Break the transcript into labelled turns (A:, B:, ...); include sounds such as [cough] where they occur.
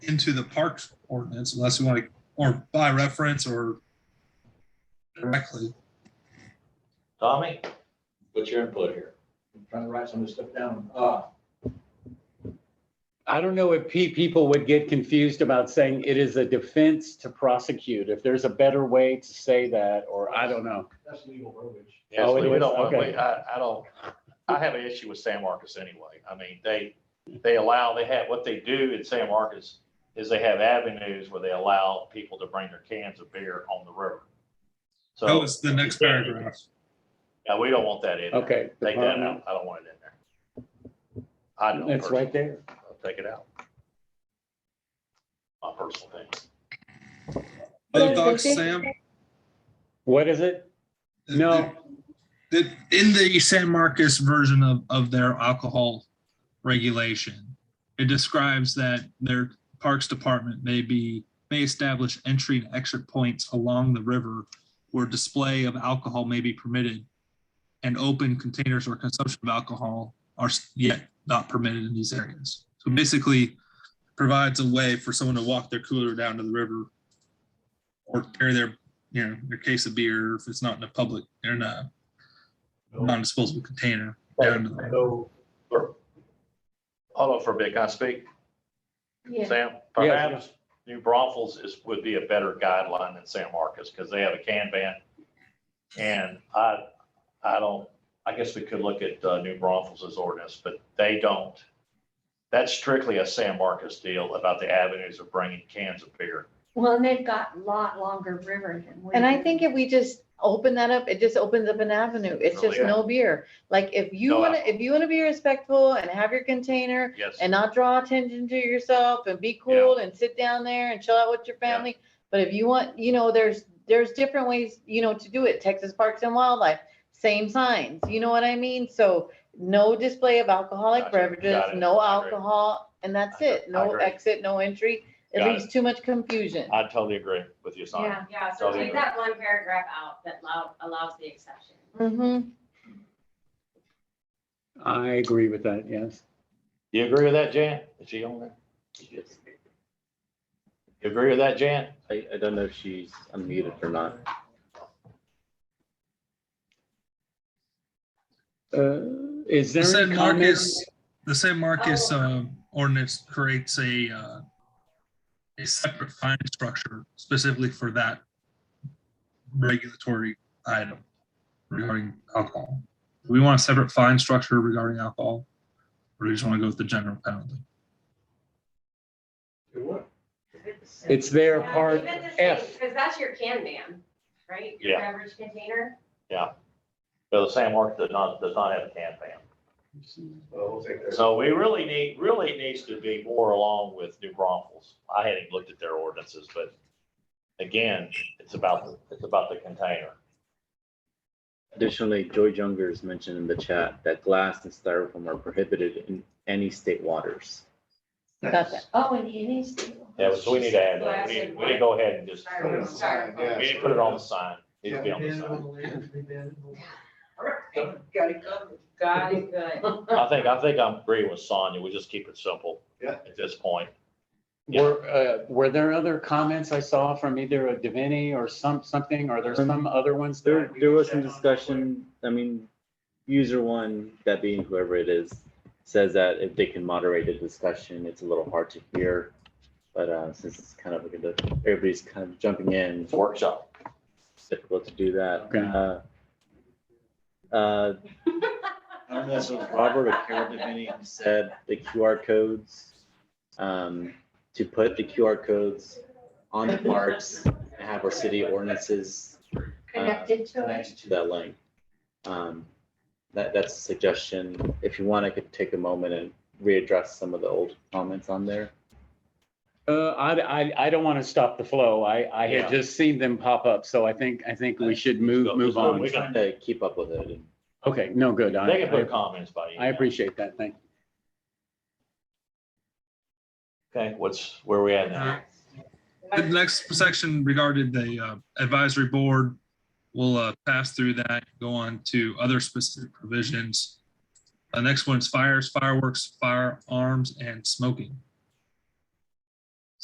A: into the parks ordinance unless we want to, or by reference or directly.
B: Tommy, what's your input here?
C: I'm trying to write some of this stuff down. Uh,
D: I don't know if pe- people would get confused about saying it is a defense to prosecute, if there's a better way to say that, or I don't know.
C: that's legal verbiage.
D: Yes,
B: Oh, we we
D: please.
B: don't, want-
D: Okay.
B: we- I, I don't, I have an issue with San Marcos anyway. I mean, they, they allow, they have, what they do in San Marcos is they have avenues where they allow people to bring their cans of beer on the river.
A: That
B: So,
A: was the next paragraph.
B: yeah, we don't want that in. there.
D: Okay.
B: Take that out. I don't want it in there. I don't.
D: It's right there.
B: personally. I'll Take it out. My personal thing.
A: Other thoughts, Sam?
D: What is it? No.
A: That in the San Marcos version of, of their alcohol regulation, it describes that their Parks Department may be, may establish entry and exit points along the river where display of alcohol may be permitted and open containers or consumption of alcohol are s- yet not permitted in these areas. So basically provides a way for someone to walk their cooler down to the river or carry their, you know, their case of beer if it's not in a public, or in a non-disposable container. down to the-
C: So
B: Hold on for a bit. Can I speak?
E: Yeah.
B: Sam,
D: Yes,
B: perhaps New Braunfels is, would be a better guideline than San Marcos because they have a can ban. And I, I don't, I guess we could look at uh, New Braunfels' ordinance, but they don't. That's strictly a San Marcos deal about the avenues of bringing cans of beer.
E: Well, and they've got a lot longer river than we.
F: And I
E: do.
F: think if we just open that up, it just opens up an avenue. It's just
B: Oh, Yeah.
F: no beer. Like if you
B: No
F: wanna,
B: alcohol.
F: if you wanna be respectful and have your container
B: Yes,
F: and not draw attention to yourself and be cool and sit down there and chill out with your
B: Yeah.
F: family. But if you want, you know, there's, there's different ways, you know, to do it. Texas Parks and Wildlife, same signs, you know what I mean? So no display of alcoholic
B: Gotcha.
F: beverages,
B: Got it.
F: no
B: I agree.
F: alcohol, and that's
B: I-
F: it.
B: I
F: No
B: agree.
F: exit, no entry. It
B: Got it.
F: leaves too much confusion.
B: I totally agree with you, Sonia.
E: Yeah,
G: Yeah, so
B: Totally.
G: take that one paragraph out that allow- allows the exception.
F: Mm-hmm.
D: I agree with that, yes.
B: You agree with that, Jan? Is she on there? You agree with that, Jan?
H: I, I don't know if she's unmuted or not.
D: Uh, Is there
A: The San
D: any comments?
A: Marcos, the San Marcos um, ordinance creates a, uh, a separate fine structure specifically for that regulatory item regarding alcohol. Do we want a separate fine structure regarding alcohol? Or do we just want to go with the general penalty?
C: do what?
D: It's their part F.
G: Because that's your can ban, right? Your
B: Yeah.
G: Beverage container.
B: So the Uh, San Marcos does not, does not have a can ban.
C: Well, we'll take that.
B: So we really need, really needs to be more along with New Braunfels. I hadn't looked at their ordinances, but again, it's about, the it's about the container.
H: Additionally, Joy Junger has mentioned in the chat that glass and styrofoam are prohibited in any state waters.
F: Got that.
E: Oh, and it is. too.
B: Yeah, so we need to add that. We need, we need to go ahead and just,
G: Sorry.
B: we need to put it on the sign. Needs to be on the sign.
C: [laughs]
G: Got it covered. Got it good.
B: I think, I think I'm agreeing with Sonia. We just keep it simple.
C: Yeah.
B: At this point. Yeah.
D: Were, uh, were there other comments I saw from either a Davini or some, something? Are there some other ones? that
H: Um, There, there was some discussion, I mean, user one, that being whoever it is, says that if they can moderate the discussion, it's a little hard to hear. But, uh, since it's kind of, like the- everybody's kind of jumping in,
B: It's workshop.
H: it's difficult to do that.
D: Okay.
H: Uh, Uh, I don't know if it was Robert or Carol Devaney who said the QR codes, um, to put the QR codes on the parks and have our city ordinances
E: Connected to it.
H: connected to that link. Um, that, that's a suggestion. If you want, I could take a moment and readdress some of the old comments on there.
D: Uh, I, I, I don't want to stop the flow. I, I
B: Yeah.
D: had just seen them pop up, so I think, I think we should move,
B: Just
D: move
B: move-
D: on.
B: we
H: Trying to keep up with it and
D: Okay, no, good. I,
B: They can
D: I-
B: put comments by email.
D: I appreciate that. Thank you.
B: Okay, what's, where we at now?
A: The next section regarded the uh, advisory board. We'll uh, pass through that, go on to other specific provisions. The next one is fires, fireworks, firearms, and smoking.